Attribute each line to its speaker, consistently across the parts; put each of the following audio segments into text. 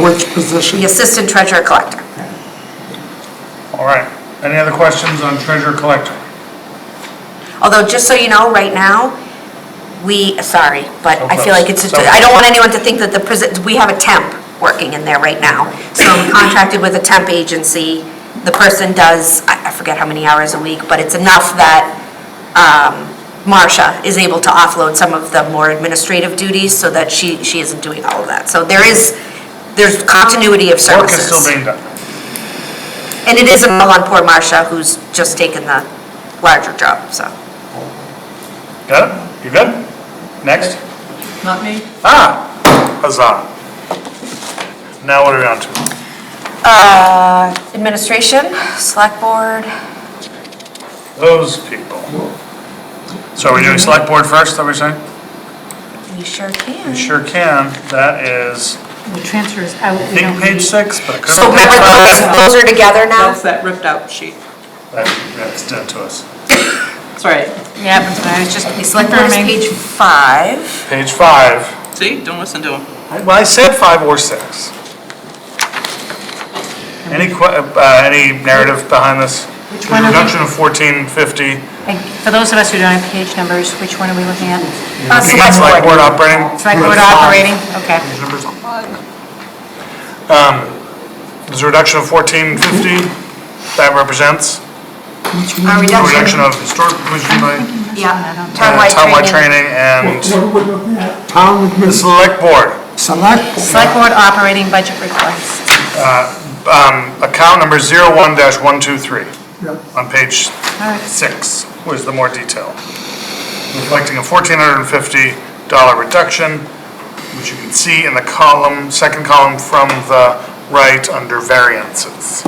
Speaker 1: which position?
Speaker 2: the assistant treasurer collector.
Speaker 3: All right. Any other questions on treasurer collector?
Speaker 2: Although, just so you know, right now, we, sorry, but I feel like it's,
Speaker 3: So close.
Speaker 2: I don't want anyone to think that the, presi- we have a temp working in there right now. So we contracted with a temp agency. The person does, I I forget how many hours a week, but it's enough that um, Marcia is able to offload some of the more administrative duties so that she, she isn't doing all of that. So there is, there's continuity of
Speaker 3: Work is still
Speaker 2: services.
Speaker 3: being done.
Speaker 2: And it isn't all on poor Marcia, who's just taken the larger job, so.
Speaker 3: Got it? You good? Next?
Speaker 4: Not me.
Speaker 3: Ah, huzzah. Now what are we on to?
Speaker 2: Uh, Administration, select board,
Speaker 3: Those people. So are we doing select board first, are we saying?
Speaker 2: you sure
Speaker 3: You
Speaker 2: can.
Speaker 3: sure can. That is,
Speaker 4: The transfer is out.
Speaker 3: I think page six, but it could
Speaker 2: So
Speaker 3: have been
Speaker 2: remember,
Speaker 3: page
Speaker 2: those, those are together now?
Speaker 4: That's that ripped out sheet.
Speaker 3: five. That- That's done to us.
Speaker 4: That's right.
Speaker 5: Yeah, happens when I was just, the select
Speaker 2: Board
Speaker 5: board
Speaker 2: is page
Speaker 5: meeting.
Speaker 2: five.
Speaker 3: Page five.
Speaker 4: See, don't listen to him.
Speaker 3: I- Well, I said five or six. Any que, uh, any narrative behind this?
Speaker 5: Which one are we-
Speaker 3: Reduction of fourteen fifty.
Speaker 5: Like, For those of us who don't have page numbers, which one are we looking at?
Speaker 2: Uh,
Speaker 3: It's like
Speaker 2: Select board.
Speaker 3: word operating.
Speaker 5: Select board operating, okay.
Speaker 3: These numbers on mine. Um, there's a reduction of fourteen fifty, that represents
Speaker 2: A
Speaker 3: a
Speaker 2: reduction.
Speaker 3: reduction of historic commission by
Speaker 2: Yeah,
Speaker 3: uh, townwide
Speaker 2: townwide training.
Speaker 3: training and
Speaker 1: What would it be? Town
Speaker 3: the
Speaker 1: admin,
Speaker 3: select board.
Speaker 1: select.
Speaker 5: Select board operating budget request.
Speaker 3: Um, account number zero one dash one two three
Speaker 1: Yep.
Speaker 3: on page
Speaker 5: All right,
Speaker 3: six was the more detail, reflecting a fourteen hundred and fifty dollar reduction, which you can see in the column, second column from the right under variances.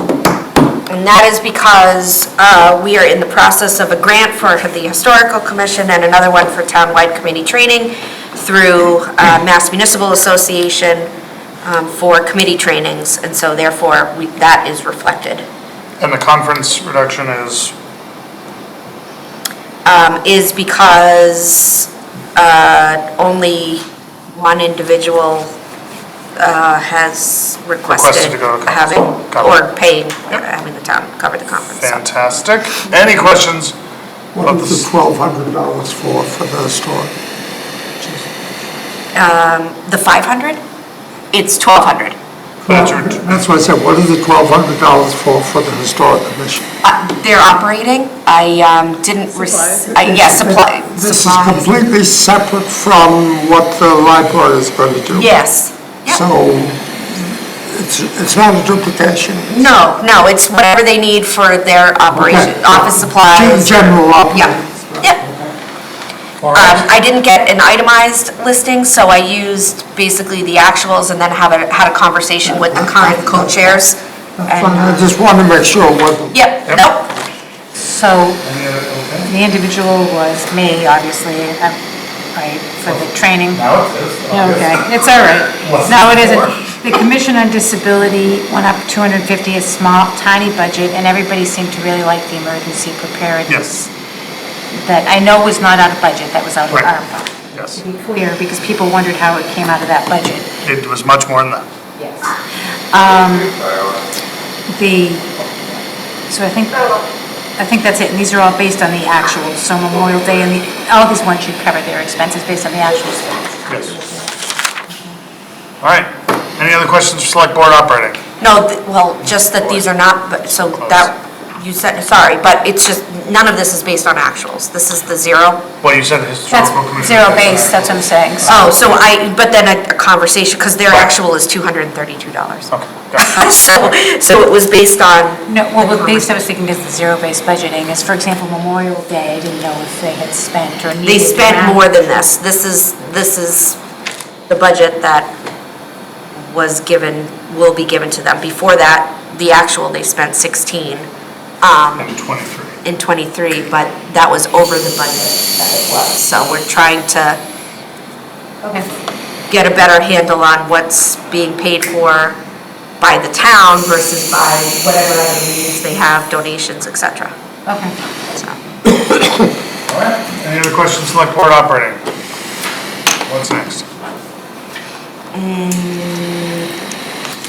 Speaker 2: And that is because uh, we are in the process of a grant for the Historical Commission and another one for townwide committee training through uh, Mass Municipal Association um, for committee trainings. And so therefore, we- that is reflected.
Speaker 3: And the conference reduction is,
Speaker 2: um, is because uh, only one individual uh, has
Speaker 3: Requested
Speaker 2: requested
Speaker 3: to go to conference.
Speaker 2: having,
Speaker 3: Got it.
Speaker 2: or paying, having the town cover the conference. so.
Speaker 3: fantastic. Any questions?
Speaker 1: What was the twelve hundred dollars for, for the store?
Speaker 2: The 500? It's 1,200.
Speaker 3: That's your-
Speaker 1: That's what I said, what is the twelve hundred dollars for, for the historic commission?
Speaker 2: Uh, They're operating. I um, didn't, yes, supply.
Speaker 1: This is
Speaker 2: supplies.
Speaker 1: completely separate from what the library is going to do.
Speaker 2: Yes. Yep.
Speaker 1: So it's, it's not a duplication.
Speaker 2: No, no, it's whatever they need for their operation,
Speaker 1: Okay.
Speaker 2: office supplies.
Speaker 1: General operating.
Speaker 2: Yeah, yeah. Um, I didn't get an itemized listing, so I used basically the actuals and then have a, had a conversation with the current co-chairs.
Speaker 1: That's fine, I
Speaker 2: And,
Speaker 1: just want to make sure it wasn't.
Speaker 2: Yep, nope,
Speaker 5: so the individual was me, obviously, uh, right, for the training.
Speaker 3: Now it is.
Speaker 5: Okay, it's all right. No, it isn't. The Commission on Disability went up 250, a small, tiny budget, and everybody seemed to really like the emergency preparedness.
Speaker 3: Yes.
Speaker 5: That I know was not out of budget, that was out of
Speaker 3: Right.
Speaker 5: ARPA.
Speaker 3: Yes,
Speaker 5: To be clear, because people wondered how it came out of that budget. Um,
Speaker 3: it was much more than that.
Speaker 5: The, so I think, I think that's it, and these are all based on the actuals, so Memorial Day and the, all these ones should cover their expenses based on the actuals.
Speaker 3: Yes. All right. Any other questions for select board operating?
Speaker 2: no, th- well, just that these are not, but, so that, you said, sorry, but it's just, none of this is based on actuals, this is the zero.
Speaker 3: Well, you said the
Speaker 5: That's
Speaker 3: historical commission.
Speaker 5: zero base, that's what I'm saying, so.
Speaker 2: Oh, so I, but then a a conversation, because their actual is two hundred and thirty-two dollars.
Speaker 3: Okay, got it.
Speaker 2: So, so it was based on,
Speaker 5: No, well, the base I was thinking is the zero-based budgeting, is for example, Memorial Day, I didn't know if they had spent or needed.
Speaker 2: they spent
Speaker 5: that.
Speaker 2: more than this, this is, this is the budget that was given, will be given to them. Before that, the actual, they spent sixteen um,
Speaker 3: And twenty-three.
Speaker 2: in twenty-three, but that was over the budget that it was. So we're trying to
Speaker 5: Okay.
Speaker 2: get a better handle on what's being paid for by the town versus by whatever other means they have, donations, et cetera.
Speaker 5: Okay.
Speaker 2: So,
Speaker 3: All right, any other questions, select board operating? What's next?